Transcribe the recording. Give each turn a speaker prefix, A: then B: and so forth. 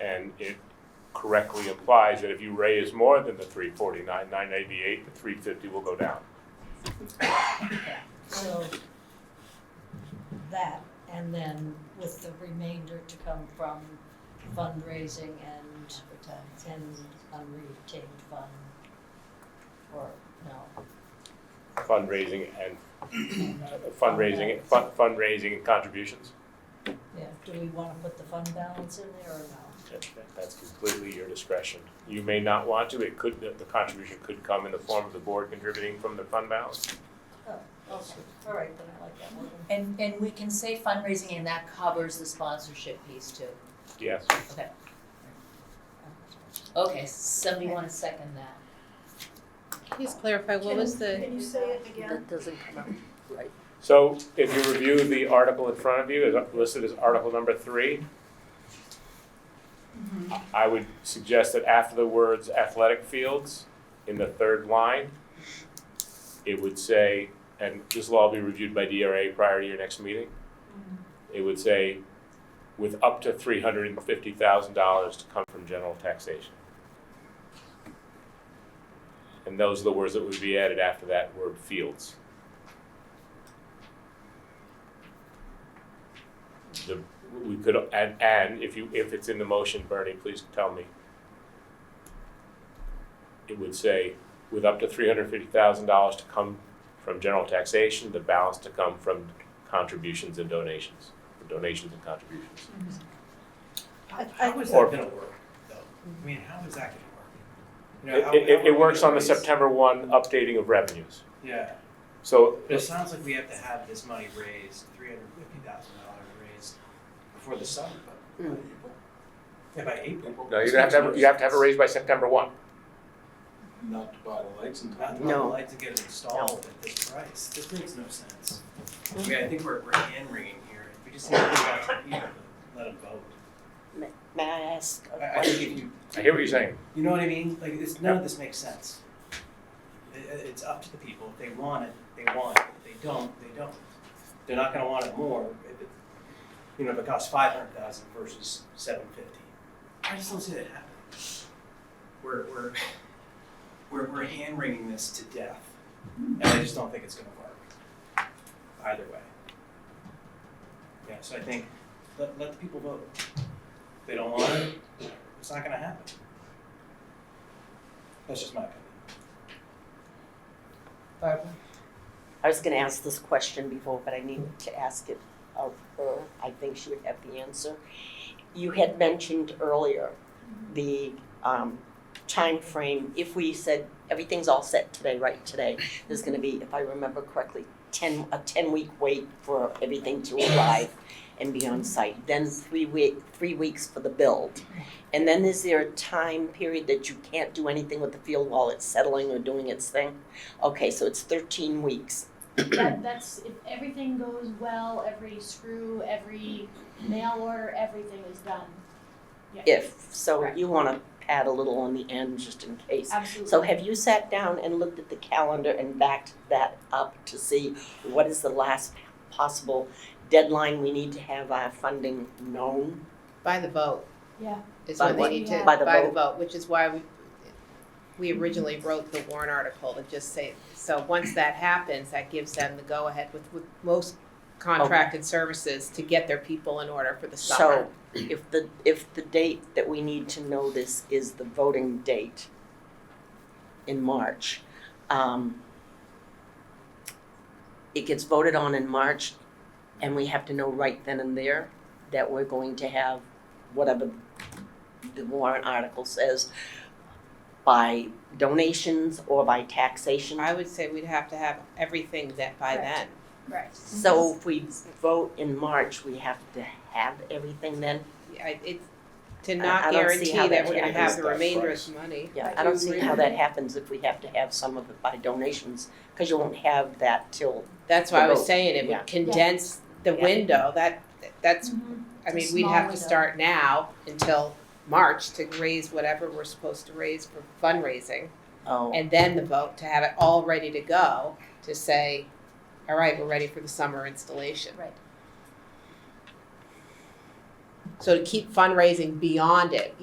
A: and it correctly implies that if you raise more than the three forty-nine, nine eighty-eight, the three fifty will go down.
B: So that, and then with the remainder to come from fundraising and, and unretained fund. Or, no,
A: Fundraising and fundraising, fun- fundraising and contributions.
B: yeah, do we wanna put the fund balance in there or no?
A: That- that- That's completely your discretion. You may not want to, it could, the the contribution could come in the form of the board contributing from the fund balance.
B: Okay, all right, then I like that one.
C: And, and we can say fundraising and that covers the sponsorship piece too.
A: Yes.
C: Okay, somebody wanna second that?
D: Please clarify, what was the,
E: Can you say it again?
F: That doesn't come out.
A: So if you review the article in front of you, it's listed as article number three. I would suggest that after the words athletic fields in the third line, it would say, and this will all be reviewed by DRA prior to your next meeting. It would say, with up to three hundred and fifty thousand dollars to come from general taxation. And those are the words that would be added after that word fields. The, we could, and, and if you, if it's in the motion, Bernie, please tell me. It would say, with up to three hundred fifty thousand dollars to come from general taxation, the balance to come from contributions and donations, donations and contributions.
E: I- I-
G: How is
A: Or-
G: that gonna work, though? I mean, how is that gonna work? You know,
A: It,
G: how-
A: it-
G: how
A: it,
G: are we
A: it works
G: gonna
A: on the
G: raise-
A: September one updating of revenues.
G: Yeah,
A: So,
G: but it sounds like we have to have this money raised, three hundred fifty thousand dollars raised before the summer, but. Yeah, by April.
A: no, you have to have, you have to have it raised by September one.
H: not to buy the lights in
G: Not
H: time.
G: that I'd
F: No.
G: like to get it installed at this price, this makes no sense. I mean, I think we're, we're hand wringing here, we just need to go out to people, let them vote.
F: May I ask a
G: I, I think if
F: question?
G: you,
A: I hear what you're saying.
G: you know what I mean, like, it's, none of this makes sense. It, it- it's up to the people, if they want it, they want it, if they don't, they don't. They're not gonna want it more, if it, you know, if it costs five hundred thousand versus seven fifty. I just don't see that happening. We're, we're, we're, we're hand wringing this to death, and I just don't think it's gonna work, either way. Yeah, so I think, let, let the people vote. If they don't want it, it's not gonna happen. That's just my opinion. Barbara?
F: I was gonna ask this question before, but I need to ask it of her. I think she would have the answer. You had mentioned earlier the um frame. if we said everything's all set today, right today, there's gonna be, if I remember correctly, ten, a ten-week wait for everything to arrive and be on site, then three week, three weeks for the build. And then is there a time period that you can't do anything with the field while it's settling or doing its thing? Okay, so it's thirteen weeks.
I: that, that's, if everything goes well, every screw, every nail order, everything is done. Yeah.
F: If, so
I: Correct.
F: you wanna pad a little on the end just in case.
I: Absolutely.
F: So have you sat down and looked at the calendar and backed that up to see what is the last possible deadline we need to have our funding known?
D: by the vote?
I: Yeah.
D: Is
F: By
D: what they
F: what?
D: need to,
F: By the
D: by the
F: vote.
D: vote, which is why we, we originally wrote the warrant article to just say, so once that happens, that gives them the go-ahead with, with most contracted services to get their people in order for the summer.
F: So if the, if the date that we need to know this is the voting date in March, um, it gets voted on in March and we have to know right then and there that we're going to have whatever the warrant article says by donations or by taxation.
D: I would say we'd have to have everything that by
I: Correct.
D: then.
I: Correct.
F: So if we vote in March, we have to have everything then?
D: I, it, to
F: I don't
D: not
F: see
D: guarantee
F: how
D: that
F: that
D: we're gonna
F: happens
D: have the
A: that
D: remainder of
A: price.
D: the money.
F: Yeah,
I: I
F: I don't
I: do
F: see
I: agree
F: how
I: with
F: that
I: you.
F: happens if we have to have some of it by donations, because you won't have that till,
D: That's why I was
F: Vote,
D: saying it
F: yeah.
D: would condense the
F: Yeah.
D: window, that, that's,
E: Mm-hmm.
I: Mhm.
D: I
I: The
D: mean, we'd
I: small
D: have to
I: window.
D: start now until March to raise whatever we're supposed to raise for fundraising.
F: oh,
D: And then the vote to have it all ready to go to say, all right, we're ready for the summer installation.
I: Right.
D: So to keep fundraising beyond it,